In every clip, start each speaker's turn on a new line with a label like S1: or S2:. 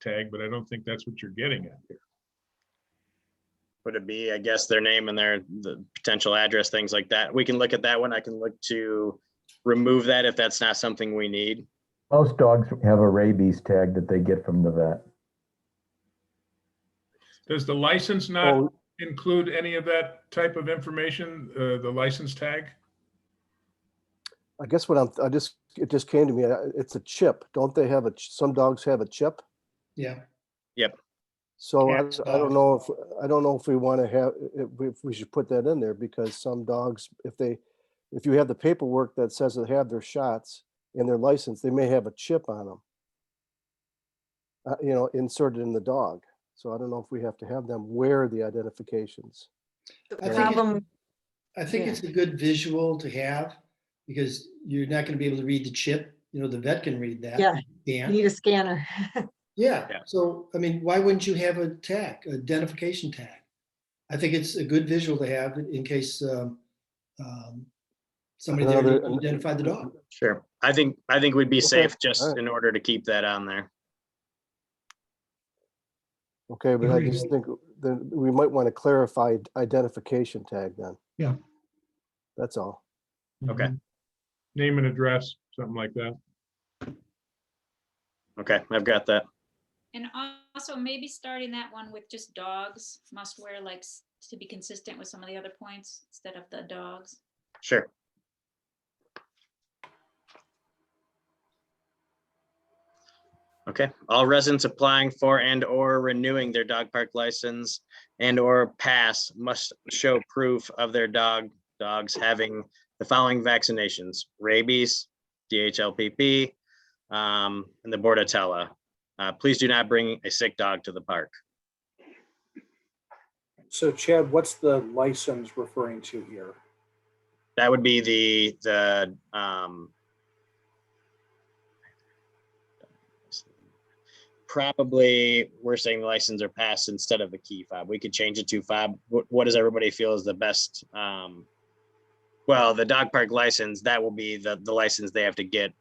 S1: tag, but I don't think that's what you're getting at here.
S2: Would it be, I guess, their name and their, the potential address, things like that? We can look at that one. I can look to remove that if that's not something we need.
S3: Most dogs have a rabies tag that they get from the vet.
S1: Does the license not
S4: Oh,
S1: include any of that type of information, uh, the license tag?
S4: I guess what I'm, I just, it just came to me, I- it's a chip. Don't they have a, ch- some dogs have a chip?
S5: Yeah,
S4: So I,
S5: Cats,
S4: I don't
S5: dogs.
S4: know if, I don't know if we want to have, if we- if we should put that in there because some dogs, if they, if you have the paperwork that says they have their shots and their license, they may have a chip on them. Uh, you know, inserted in the dog. So I don't know if we have to have them wear the identifications.
S6: The
S5: I think it-
S6: problem,
S5: I think
S6: Yeah.
S5: it's a good visual to have because you're not going to be able to read the chip. You know, the vet can read that.
S6: Yeah. you
S5: Dan.
S6: need a scanner.
S5: Yeah.
S2: Yeah.
S5: So, I mean, why wouldn't you have a tag, identification tag? I think it's a good visual to have in case um, um, somebody there
S4: Another-
S5: didn't identify the dog.
S2: Sure. I think, I think we'd be safe just
S4: alright.
S2: in order to keep that on there.
S4: Okay, but I
S5: Agreed.
S4: just think that we might want to clarify identification tag then.
S5: Yeah.
S4: That's all.
S2: Okay.
S1: Name and address, something like that.
S2: Okay, I've got that.
S7: And also maybe starting that one with just dogs must wear like s- to be consistent with some of the other points instead of the dogs.
S2: Sure. Okay, all residents applying for and or renewing their dog park license and or pass must show proof of their dog, dogs having the following vaccinations, rabies, DHLPP, um, and the Bordetella. Uh, please do not bring a sick dog to the park.
S8: So Chad, what's the license referring to here?
S2: That would be the, the, um, probably we're saying license or pass instead of the key fob. We could change it to fob. What, what does everybody feel is the best? Um, well, the dog park license, that will be the, the license they have to get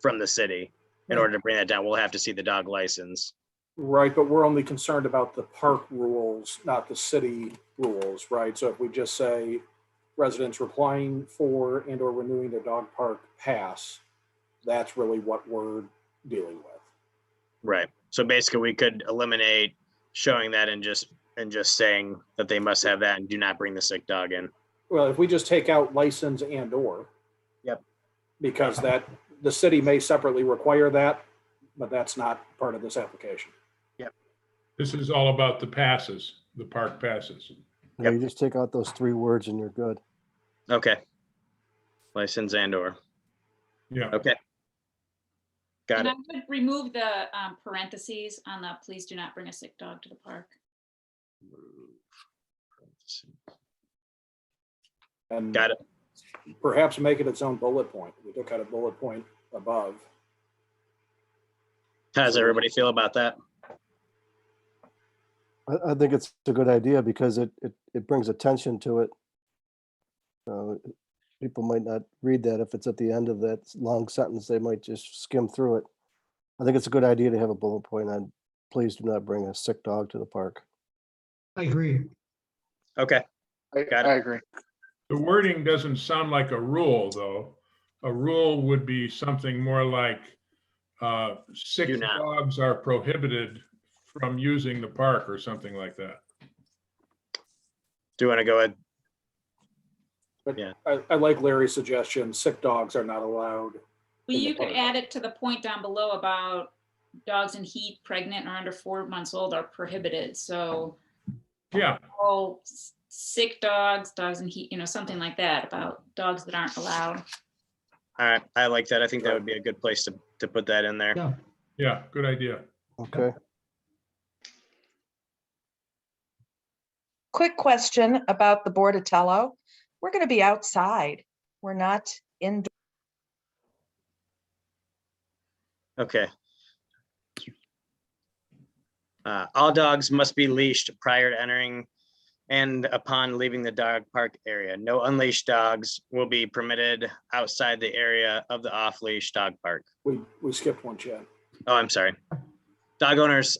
S2: from the city. In
S5: Right.
S2: order to bring that down, we'll have to see the dog license.
S8: Right, but we're only concerned about the park rules, not the city rules, right? So if we just say residents applying for and or renewing their dog park pass, that's really what we're dealing with.
S2: Right. So basically we could eliminate showing that and just, and just saying that they must have that and do not bring the sick dog in.
S8: Well, if we just take out license and or.
S2: Yep.
S8: Because that, the city may separately require that, but that's not part of this application.
S1: This is all about the passes, the park passes.
S4: Yeah, you just take out those three words and you're good.
S2: Okay. License and or,
S1: Yeah,
S2: okay. Got
S7: And
S2: it.
S7: I would remove the um, parentheses on the please do not bring a sick dog to the park.
S8: And
S2: Got it.
S8: perhaps make it its own bullet point. We took out a bullet point above.
S2: How does everybody feel about that?
S4: I, I think it's a good idea because it, it, it brings attention to it. Uh, People might not read that if it's at the end of that s- long sentence, they might just skim through it. I think it's a good idea to have a bullet point on, please do not bring a sick dog to the park.
S5: I agree.
S2: Okay,
S9: I,
S2: Got it.
S9: I agree.
S1: the wording doesn't sound like a rule, though. A rule would be something more like uh,
S2: Do
S1: six
S2: not.
S1: dogs are prohibited from using the park or something like that.
S2: do you want to go ahead?
S8: I, I like Larry's suggestion, sick dogs are not allowed.
S7: Well,
S8: In the
S7: you could
S8: park.
S7: add it to the point down below about dogs in heat, pregnant or under four months old are prohibited. So
S1: Yeah,
S7: all s- sick dogs, dogs in heat, you know, something like that about dogs that aren't allowed.
S2: All right, I like that. I think that would be a good place to, to put that in there.
S1: yeah, good idea.
S4: Okay,
S10: Quick question about the Bordatello. We're going to be outside. We're not indoors.
S2: Okay. Uh, all dogs must be leashed prior to entering and upon leaving the dog park area. No unleashed dogs will be permitted outside the area of the off-leash dog park.
S8: We, we skipped one, Chad.
S2: Oh, I'm sorry. Dog owners